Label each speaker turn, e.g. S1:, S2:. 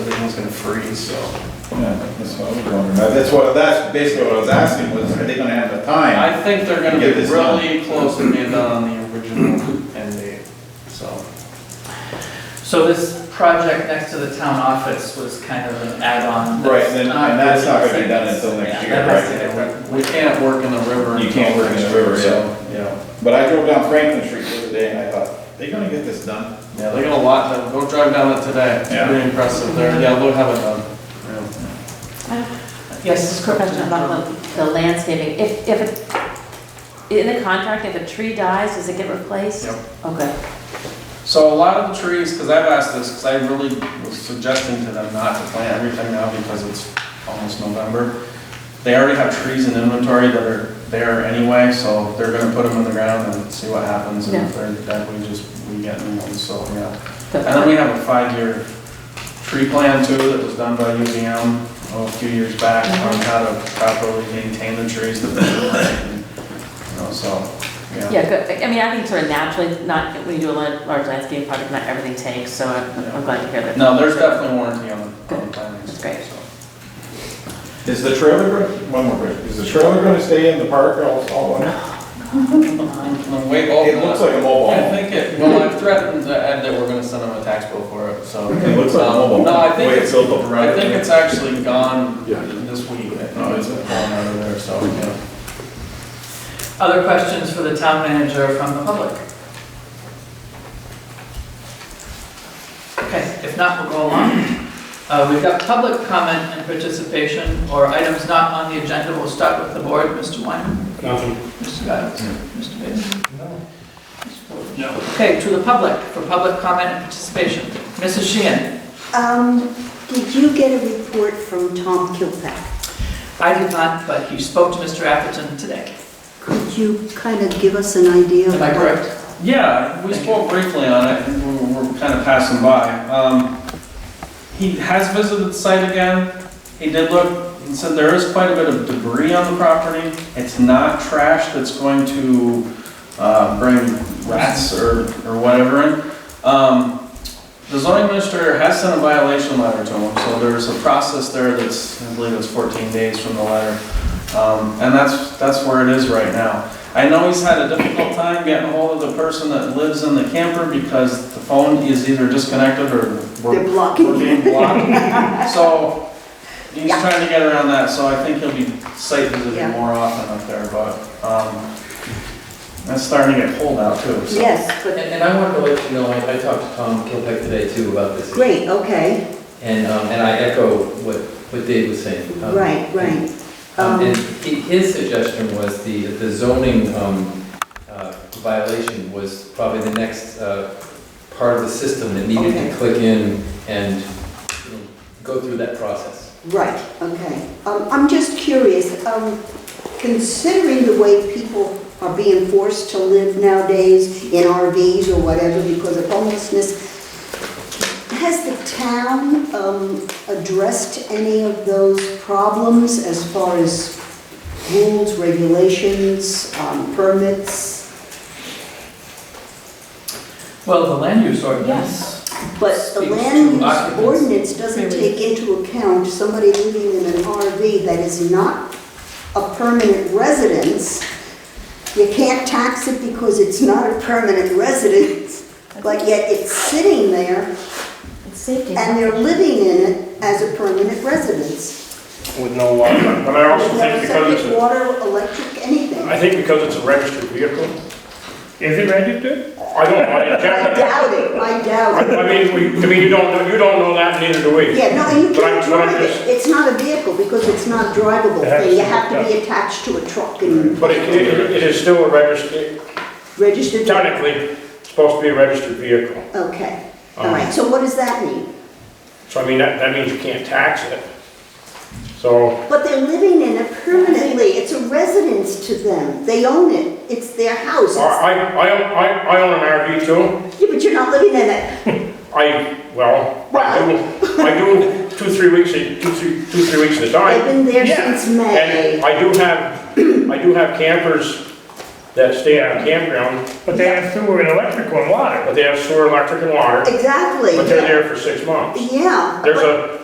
S1: everything's gonna freeze, so.
S2: Yeah, that's what I was wondering. That's what, that's basically what I was asking was, are they gonna have the time?
S1: I think they're gonna be
S2: Get this done.
S1: really close to being done on the original end date, so.
S3: So this project next to the town office was kind of an add-on.
S2: Right, and- and that's not gonna be done
S3: really-
S2: until next
S3: Yeah,
S2: year,
S3: that has to
S2: right?
S3: get worked.
S1: We can't work in the river.
S2: You can't work in the river, yeah.
S1: so, Yeah,
S2: But I drove down Franklin Street the other day and I thought, they gonna get this done?
S1: yeah, they got a lot, done. go drive down it today, it's
S2: Yeah.
S1: pretty impressive there, yeah, they'll have it done. Yeah.
S3: Yes.
S4: Just a quick question about the- the landscaping. If, if, it- in the contract, if a tree dies, does it get replaced?
S1: Yep.
S4: Okay.
S1: So a lot of the trees, because I've asked this, because I really was suggesting to them not to plant everything now because it's almost November. They already have trees in inventory that are there anyway, so they're gonna put them in the ground and see what happens. And if they're dead, we just, we get new ones, so, yeah. And then we have a five-year tree plan too that was done by UVM oh, a few years back
S4: Mm-hmm.
S1: on how to properly maintain the trees that they plant. You know, so, yeah.
S4: Yeah, good. I mean, I think sort of naturally, not, when you do a lar- large landscape project, not everything takes, so I'm I'm glad to hear that.
S1: No, there's definitely warranty on, on the plantings.
S4: That's great.
S1: so.
S2: Is the trailer, gonna- one more break, is the trailer gonna stay in the park all, all winter?
S1: I'm way off.
S2: It looks like a mobile
S1: Oh, I
S2: home.
S1: think it, well, I've threatened to add that we're gonna send them a tax bill for it, so.
S2: It looks like a mobile home.
S1: No, I think
S2: The way
S1: it's,
S2: it's built up around
S1: I think
S2: it.
S1: it's actually gone
S5: Yeah.
S1: this week.
S2: Oh,
S1: It's
S2: is
S1: gone
S2: it?
S1: out of there, so, yeah.
S3: Other questions for the town manager from the public? Okay, if not, we'll go along. Uh, We've got public comment and participation, or items not on the agenda. We'll start with the board, Mr. Wyman,
S6: Nothing.
S3: Mr. Giles, Mr. Bailey. No. Okay, to the public, for public comment and participation. Mrs. Sheehan?
S7: Um, Did you get a report from Tom Kilpack?
S3: I did not, but he spoke to Mr. Atherton today.
S7: Could you kind of give us an idea? of
S3: Am I
S7: what-
S3: correct?
S1: Yeah, we
S3: Thank
S1: spoke briefly on it, and we we're kind of passing by. Um, He has visited the site again. He did look, and said there is quite a bit of debris on the property. It's not trash that's going to uh, bring rats or, or whatever in. Um, The zoning administrator has sent a violation letter to him, so there's a process there that's, I believe it's 14 days from the letter. Um, And that's, that's where it is right now. I know he's had a difficult time getting hold of the person that lives in the camper because the phone is either disconnected or
S7: They're
S1: we're we're
S7: blocking.
S1: being blocked. So he's
S7: Yeah.
S1: trying to get around that, so I think he'll be site
S7: Yeah.
S1: visiting more often up there, but, um, that's starting to get cold out too, so.
S7: Yes,
S5: And,
S7: but,
S5: and I wanted to let you know, I, I talked to Tom Kilpack today too about this.
S7: great, okay,
S5: And, um, and I echo what, what Dave was saying. Um,
S7: right, right.
S5: Um, and
S7: Um,
S5: he- his suggestion was the, the zoning, um, uh, violation was probably the next, uh, part of the system that needed
S7: Okay.
S5: to click in and you know, go through that process.
S7: Right, okay. Um, I'm just curious, um, considering the way people are being forced to live nowadays in RVs or whatever because of homelessness, has the town um, addressed any of those problems as far as rules, regulations, um, permits?
S3: Well, the land use ordinance.
S7: But the
S3: speaks to
S7: land use
S3: occupants.
S7: ordinance doesn't take into account somebody living in an RV that is not a permanent residence. You can't tax it because it's not a permanent residence, but yet it's sitting there
S4: It's safety.
S7: and they're living in it as a permanent residence.
S6: With no water. But I also
S7: With no
S6: think because it's,
S7: septic,
S6: a-
S7: Water, electric, anything.
S6: I think because it's a registered vehicle,
S8: Is it registered?
S6: I don't, I
S7: I
S6: doubt it.
S7: doubt it, I
S6: I
S7: doubt it.
S6: I mean, we, I mean, you don't, know- you don't know that, neither do we.
S7: Yeah, no, you
S6: But I'm-
S7: can't
S6: but I'm
S7: drive
S6: just-
S7: it. It's not a vehicle because it's not drivable.
S6: It has
S7: You
S6: to be
S7: have to be
S6: attached.
S7: attached to a truck and
S6: But it, it it is still a registered,
S7: registered.
S6: technically, it's supposed to be a registered vehicle.
S7: Okay, all
S6: Um,
S7: right, so what does that mean?
S6: So I mean, that, that means you can't tax it. So,
S7: But they're living in it permanently, it's a residence to them, they own it, it's their house.
S6: I,
S7: It's-
S6: I, I, own- I I own an RV too.
S7: Yeah, but you're not living in it.
S6: I, well, I do, I do two, three weeks, a- two, three, two, three weeks at a time.
S7: They've been there
S6: Yeah.
S7: since May.
S6: And I do have, I do have campers that stay at a campground,
S8: But they have sewer and electrical and water.
S6: but they have sewer, electric, and water,
S7: Exactly,
S6: but they're
S7: yeah.
S6: there for six months.
S7: Yeah.
S6: There's
S7: but-
S6: a,